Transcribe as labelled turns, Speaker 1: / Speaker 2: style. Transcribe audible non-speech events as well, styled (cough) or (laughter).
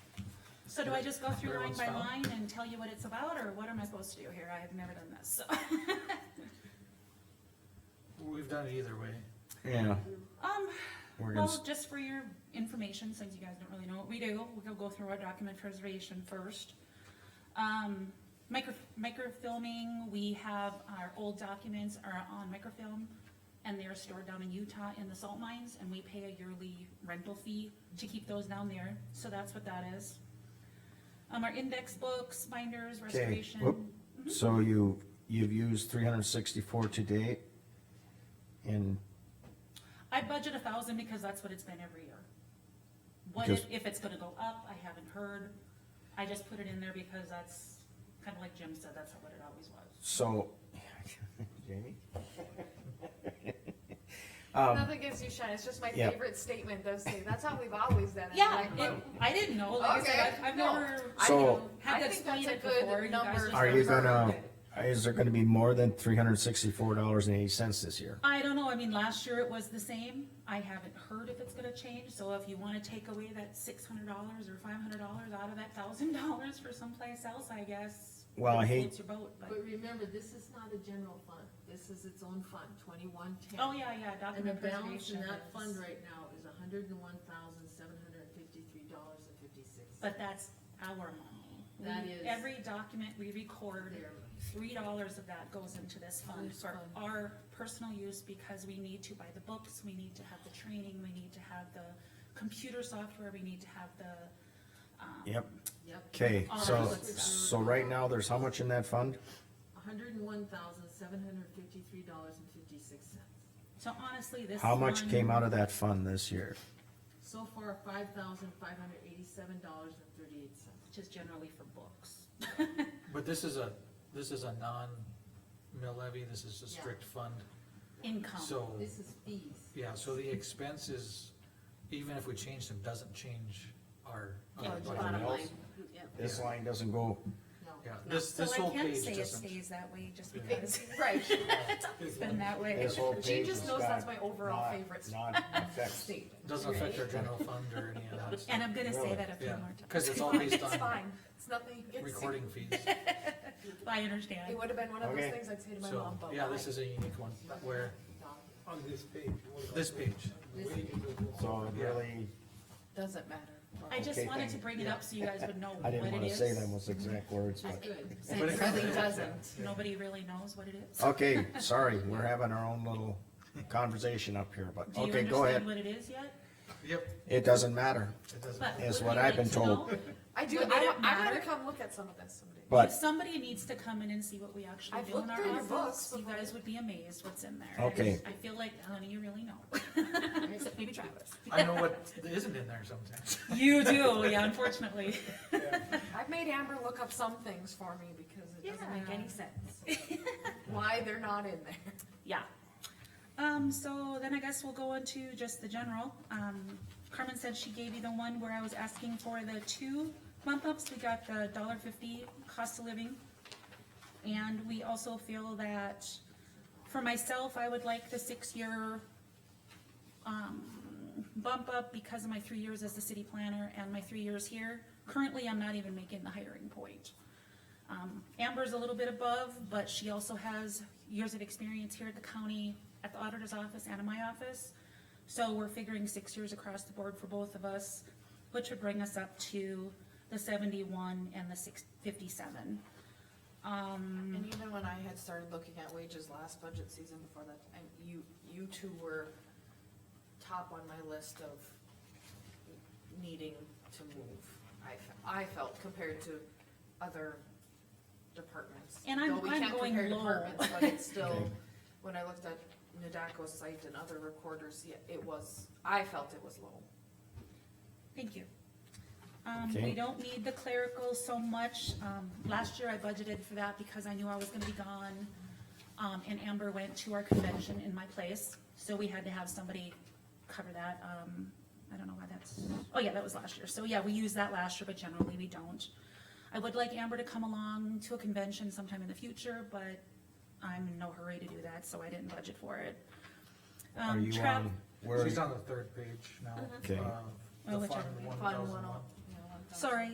Speaker 1: So do I just go through line
Speaker 2: Everyone's
Speaker 1: by
Speaker 2: found.
Speaker 1: line and tell you what it's about, or what am I supposed to do here? I have never done this, so.
Speaker 2: We've done it either way.
Speaker 3: Yeah,
Speaker 1: Um,
Speaker 3: we're gonna,
Speaker 1: well,
Speaker 3: s-
Speaker 1: just for your information, since you guys don't really know what we do, we'll go through our document preservation first. Um, micro, microfilming, we have our old documents are on microfilm, and they're stored down in Utah in the salt mines, and we pay a yearly rental fee to keep those down there, so that's what that is. Um, our index books, binders,
Speaker 3: whoop.
Speaker 1: restoration,
Speaker 3: so you, you've used three hundred and sixty-four to date? And,
Speaker 1: I budget a thousand because that's what it's been every year. What
Speaker 3: Because-
Speaker 1: if, if it's gonna go up, I haven't heard, I just put it in there because that's, kinda like Jim said, that's what it always was.
Speaker 3: so, (laughs) Jamie?
Speaker 4: Nothing gives you shine. It's just my
Speaker 3: Um, yeah.
Speaker 4: favorite statement. Those things. That's how we've always done it.
Speaker 1: Yeah,
Speaker 4: Like,
Speaker 1: it, I didn't know, like I
Speaker 4: Okay,
Speaker 1: said, I've, I've
Speaker 4: no.
Speaker 1: never
Speaker 4: I
Speaker 3: So-
Speaker 4: think- I
Speaker 1: had to
Speaker 4: think
Speaker 1: explain
Speaker 4: that's
Speaker 1: it
Speaker 4: a good
Speaker 1: before, you
Speaker 4: number
Speaker 1: guys just.
Speaker 3: Are you
Speaker 1: don't know.
Speaker 3: gonna, is there gonna be more than three hundred and sixty-four dollars and eighty cents this year?
Speaker 1: I don't know, I mean, last year it was the same, I haven't heard if it's gonna change, so if you wanna take away that six hundred dollars or five hundred dollars out of that thousand (laughs) dollars for someplace else, I guess.
Speaker 3: Well, I
Speaker 1: it
Speaker 3: hate-
Speaker 1: floats your boat, but-
Speaker 5: But remember, this is not a general fund, this is its own fund, twenty-one ten.
Speaker 1: Oh, yeah, yeah,
Speaker 5: And the
Speaker 1: document
Speaker 5: balance
Speaker 1: preservation
Speaker 5: in that
Speaker 1: is-
Speaker 5: fund right now is hundred and one thousand, seven hundred and fifty-three dollars and fifty-six.
Speaker 1: But that's our money. We-
Speaker 5: That is-
Speaker 1: Every document we record, three dollars of that goes into this fund
Speaker 5: This
Speaker 1: for
Speaker 5: fund.
Speaker 1: our personal use because we need to buy the books, we need to have the training, we need to have the computer software, we need to have the, um.
Speaker 3: Yep,
Speaker 5: Yep,
Speaker 3: okay,
Speaker 1: All
Speaker 3: so,
Speaker 1: right.
Speaker 3: so right now, there's how much in that fund?
Speaker 5: hundred and one thousand, seven hundred and fifty-three dollars and fifty-six cents.
Speaker 1: So honestly, this.
Speaker 3: How much
Speaker 1: fund-
Speaker 3: came out of that fund this year?
Speaker 5: So far, five thousand, five hundred eighty-seven dollars and thirty-eight cents.
Speaker 1: Which is generally for books.
Speaker 2: But this is a, this is a non-mill levy, this is a
Speaker 5: Yeah.
Speaker 2: strict fund,
Speaker 1: Income,
Speaker 2: so,
Speaker 5: This is fees.
Speaker 2: yeah, so the expenses, even if we change them, doesn't change our. our
Speaker 1: Yeah,
Speaker 2: budget.
Speaker 1: bottom line.
Speaker 3: This line doesn't go,
Speaker 5: No.
Speaker 2: Yeah, this,
Speaker 1: so
Speaker 2: this
Speaker 1: I
Speaker 2: whole
Speaker 1: can't
Speaker 2: page
Speaker 1: say it
Speaker 2: doesn't.
Speaker 1: stays that way just
Speaker 2: Yeah.
Speaker 1: because
Speaker 4: (laughs) Right.
Speaker 1: it's been that way.
Speaker 3: this whole page
Speaker 4: She just
Speaker 3: has
Speaker 4: knows
Speaker 3: got
Speaker 4: that's my overall
Speaker 3: not-
Speaker 4: favorite
Speaker 3: Not
Speaker 1: (laughs)
Speaker 3: affect,
Speaker 4: statement.
Speaker 2: Doesn't affect our general fund or any of that stuff.
Speaker 1: And I'm gonna say
Speaker 3: Really?
Speaker 1: that a few
Speaker 2: Yeah,
Speaker 1: more times.
Speaker 2: cause it's
Speaker 1: (laughs)
Speaker 2: all based
Speaker 4: It's
Speaker 2: on
Speaker 4: fine. It's nothing. It's,
Speaker 2: recording fees,
Speaker 1: I understand.
Speaker 4: It would have been one of
Speaker 3: Okay.
Speaker 4: those things I'd say to my
Speaker 2: so,
Speaker 4: mom, but
Speaker 2: yeah,
Speaker 4: why?
Speaker 2: this is a unique one, where,
Speaker 6: On this page.
Speaker 2: this page,
Speaker 5: This
Speaker 3: so it really,
Speaker 4: doesn't matter.
Speaker 1: I just
Speaker 3: Okay,
Speaker 1: wanted
Speaker 3: thank
Speaker 1: to
Speaker 3: you.
Speaker 1: bring it up so you guys would know
Speaker 3: I
Speaker 1: what
Speaker 3: didn't
Speaker 1: it
Speaker 3: wanna
Speaker 1: is.
Speaker 3: say them with exact words,
Speaker 5: That's
Speaker 3: but.
Speaker 5: good.
Speaker 2: But it
Speaker 1: Since
Speaker 2: really
Speaker 4: doesn't.
Speaker 1: nobody really knows what it is.
Speaker 3: Okay, sorry, we're having our own little conversation up here, but,
Speaker 1: Do you
Speaker 3: okay, go
Speaker 1: understand
Speaker 3: ahead.
Speaker 1: what it is yet?
Speaker 2: yep,
Speaker 3: It doesn't matter,
Speaker 2: it doesn't.
Speaker 1: But
Speaker 3: Is
Speaker 1: would
Speaker 3: what
Speaker 1: you
Speaker 3: I've
Speaker 1: like
Speaker 3: been
Speaker 1: to
Speaker 3: told.
Speaker 1: know?
Speaker 4: I do, I,
Speaker 1: Would it
Speaker 4: I'm
Speaker 1: matter?
Speaker 4: gonna come look at some of this someday. (laughs)
Speaker 1: If
Speaker 3: but,
Speaker 1: somebody needs to come in and see what we actually
Speaker 4: I've
Speaker 1: do in
Speaker 4: looked
Speaker 1: our
Speaker 4: through your
Speaker 1: office,
Speaker 4: books
Speaker 1: you
Speaker 4: before.
Speaker 1: guys would be amazed what's in there.
Speaker 3: Okay.
Speaker 1: I feel like none of you really know. Except maybe Travis.
Speaker 2: I know what isn't in there sometimes.
Speaker 1: You do, yeah, unfortunately.
Speaker 4: I've made Amber look up some things for me because it doesn't make
Speaker 1: Yeah.
Speaker 4: any (laughs) sense. Why they're not in there.
Speaker 1: Yeah. Um, so then I guess we'll go into just the general. Um, Carmen said she gave you the one where I was asking for the two bump ups. We got the dollar fifty cost of living. And we also feel that, for myself, I would like the six-year, um, bump up because of my three years as the city planner and my three years here. Currently, I'm not even making the hiring point. Um, Amber's a little bit above, but she also has years of experience here at the county, at the auditor's office and in my office. So we're figuring six years across the board for both of us, which would bring us up to the seventy-one and the six, fifty-seven. Um,
Speaker 4: And even when I had started looking at wages last budget season before that, and you, you two were top on my list of needing to move. I, fe- I felt compared to other departments.
Speaker 1: And I'm-
Speaker 4: Though we
Speaker 1: I'm
Speaker 4: can't
Speaker 1: going
Speaker 4: compare
Speaker 1: low.
Speaker 4: departments, But it's
Speaker 3: Okay.
Speaker 4: still, when I looked at Nadako's site and other recorders, yeah, it was, I felt it was low.
Speaker 1: Thank you. Um,
Speaker 3: Okay.
Speaker 1: we don't need the clerical so much. Um, last year I budgeted for that because I knew I was gonna be gone. Um, and Amber went to our convention in my place, so we had to have somebody cover that. Um, I don't know why that's, oh yeah, that was last year. So yeah, we used that last year, but generally we don't. I would like Amber to come along to a convention sometime in the future, but I'm in no hurry to do that, so I didn't budget for it.
Speaker 3: are
Speaker 1: Um,
Speaker 3: you
Speaker 1: Trav-
Speaker 3: on, where,
Speaker 2: She's on the third page now.
Speaker 3: Okay.
Speaker 2: of
Speaker 1: Oh,
Speaker 2: The
Speaker 1: whichever
Speaker 2: fund
Speaker 1: way.
Speaker 2: one
Speaker 4: Fun
Speaker 2: thousand
Speaker 4: one
Speaker 2: one.
Speaker 4: oh- yeah, one thousand.
Speaker 1: Sorry,